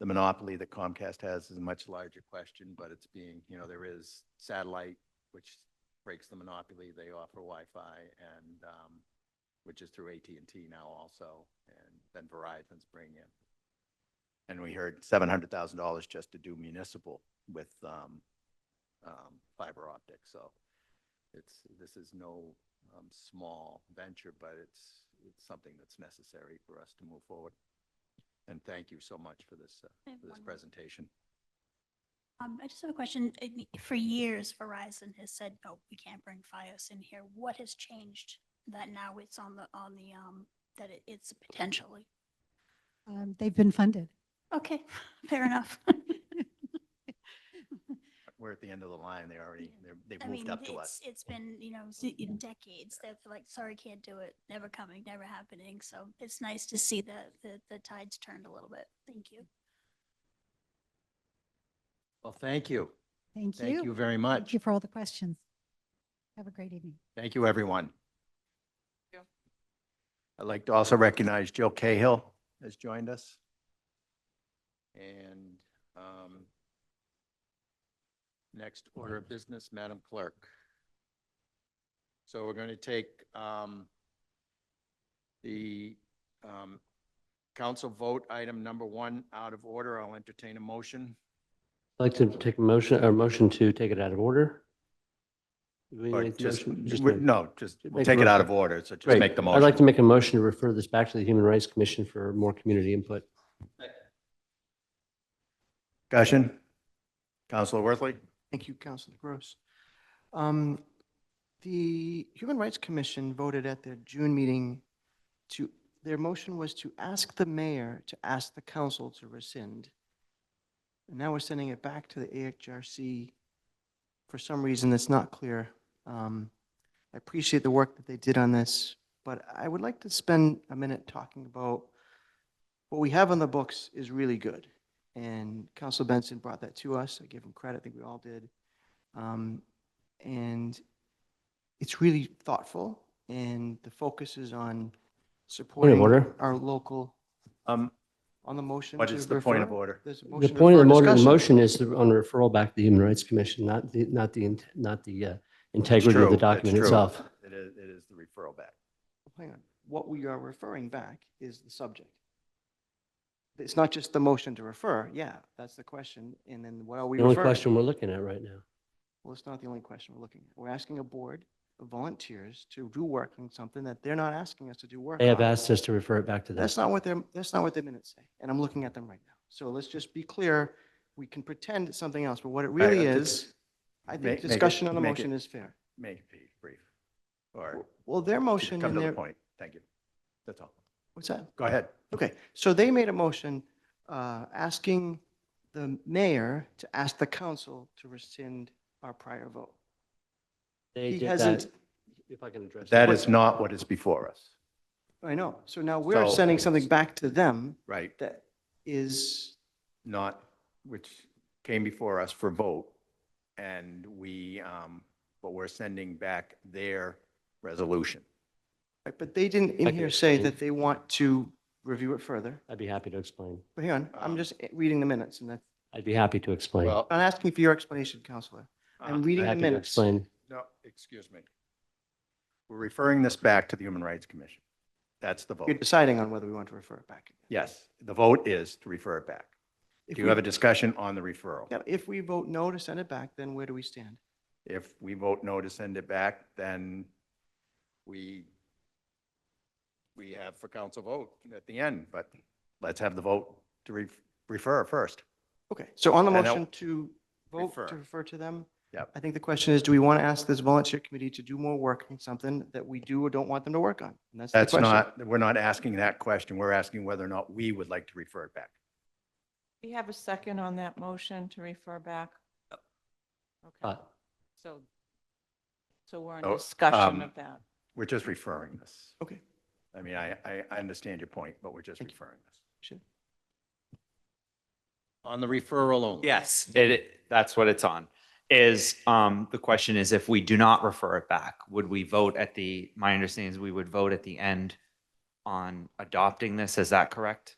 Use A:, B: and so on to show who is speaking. A: the monopoly that Comcast has is a much larger question, but it's being, you know, there is satellite, which breaks the monopoly. They offer Wi-Fi and, um, which is through AT&T now also, and then Verizon's bringing in. And we heard seven hundred thousand dollars just to do municipal with, um, um, fiber optic, so it's, this is no, um, small venture, but it's, it's something that's necessary for us to move forward. And thank you so much for this, uh,
B: I have
A: for this
B: one more.
A: presentation.
B: Um, I just have a question. I mean, For years, Verizon has said, no, we can't bring Fios in here. What has changed that now it's on the, on the, um, that it- it's potentially?
C: Um, They've been funded.
B: Okay, fair enough.
A: We're at the end of the line. They already,
B: Yeah.
A: they're- they've
B: I
A: moved
B: mean,
A: up to
B: it's,
A: us.
B: it's been, you know, s- decades that they're like, sorry, can't do it, never coming, never happening. So it's nice to see that, the the tides turned a little bit. Thank you.
A: Well, thank you.
C: Thank
A: Thank you
C: you.
A: very
C: Thank
A: much.
C: you for all the questions. Have a great evening.
A: Thank you, everyone.
D: Thank you.
A: I'd like to also recognize Jill Cahill has joined us. And um, next order of business, Madam Clerk. So we're going to take um, the um, council vote item number one out of order. I'll entertain a motion.
E: I'd like to take a motion, or motion to take it out of order. Do we
A: Or
E: make the
A: just,
E: motion? Just
A: we're-
E: make-
A: no, just, we'll
E: make
A: take
E: the
A: it out of
E: motion.
A: order, so just
E: Great.
A: make the
E: I'd like to
A: motion.
E: make a motion to refer this back to the Human Rights Commission for more community input.
A: Discussion? Counselor Worthley?
F: Thank you, Councilor Gross. Um, The Human Rights Commission voted at their June meeting to, their motion was to ask the mayor to ask the council to rescind. And now we're sending it back to the AHRC. For some reason, it's not clear. Um, I appreciate the work that they did on this, but I would like to spend a minute talking about what we have on the books is really good. And Council Benson brought that to us. I give him credit. I think we all did. Um, And it's really thoughtful and the focus is on supporting
E: order.
F: our local,
A: Um,
F: on the motion.
A: What
F: to
A: is the point of
F: refer?
A: order?
F: There's a
E: The
F: motion to
E: point of the
F: refer
E: motion, the
F: discussion.
E: motion is the- on referral back to the Human Rights Commission, not the, not the, int- not the uh,
A: It's
E: integrity of
A: true.
E: the
A: It's
E: document
A: true.
E: itself.
A: It is, it is the referral back.
F: Hang on. What we are referring back is the subject. It's not just the motion to refer. Yeah, that's the question. And then what are we
E: The only
F: referring?
E: question we're looking at right now.
F: Well, it's not the only question we're looking at. We're asking a board of volunteers to do work on something that they're not asking us to do work on.
E: They have asked us to refer it back to them.
F: That's not what their, that's not what their minutes say, and I'm looking at them right now. So let's just be clear, we can pretend it's something else, but what it
A: right,
F: really
A: let's
F: is, I
A: make-
F: think
A: make it-
F: discussion on the
A: make
F: motion
A: it-
F: is fair.
A: Make it brief. Or
F: Well, their motion
A: come
F: and
A: to the
F: their,
A: point. Thank you. That's all.
F: what's that?
A: Go ahead.
F: Okay, so they made a motion uh, asking the mayor to ask the council to rescind our prior vote.
E: They
F: he
E: did
F: hasn't-
E: that- If I can address.
A: That is not what is before us,
F: I know, so now we're
A: So-
F: sending something back to them
A: right?
F: that is
A: Not, which came before us for vote. And we, um, but we're sending back their resolution.
F: Right, But they didn't in
E: Like
F: here
E: you're
F: say
E: saying.
F: that they want to review it further.
E: I'd be happy to explain.
F: But hang on,
A: Um,
F: I'm just reading the minutes and that's,
E: I'd be happy to explain.
A: Well,
F: I'm not asking for your explanation, Counselor. I'm
A: uh,
F: reading the
E: Happy to
F: minutes.
E: explain.
A: No, excuse me. We're referring this back to the Human Rights Commission. That's the
F: You're
A: vote.
F: deciding on whether we want to refer it back.
A: Yes, the vote is to refer it back.
F: If
A: Do you
F: we-
A: have a discussion on the referral?
F: Yeah, If we vote no to send it back, then where do we stand?
A: If we vote no to send it back, then we, we have for council vote at the end, but let's have the vote to re- refer first.
F: Okay, so on the
A: I know.
F: motion to vote
A: Refer.
F: to refer to them?
A: Yep.
F: I think the question is, do we want to ask this volunteer committee to do more work on something that we do or don't want them to work on? And the
A: That's
F: question.
A: not, we're not asking that question. We're asking whether or not we would like to refer it back.
D: We have a second on that motion to refer back? Okay,
E: Uh,
D: so, so we're
A: So,
D: in discussion
A: um,
D: of that.
A: We're just referring this.
F: Okay.
A: I mean, I, I, I understand your point, but we're just
F: Thank you.
A: referring this.
F: Sure.
A: On the referral only.
G: Yes, it- it, that's what it's on. Is, um, the question is if we do not refer it back, would we vote at the, my understanding is we would vote at the end on adopting this, is that correct?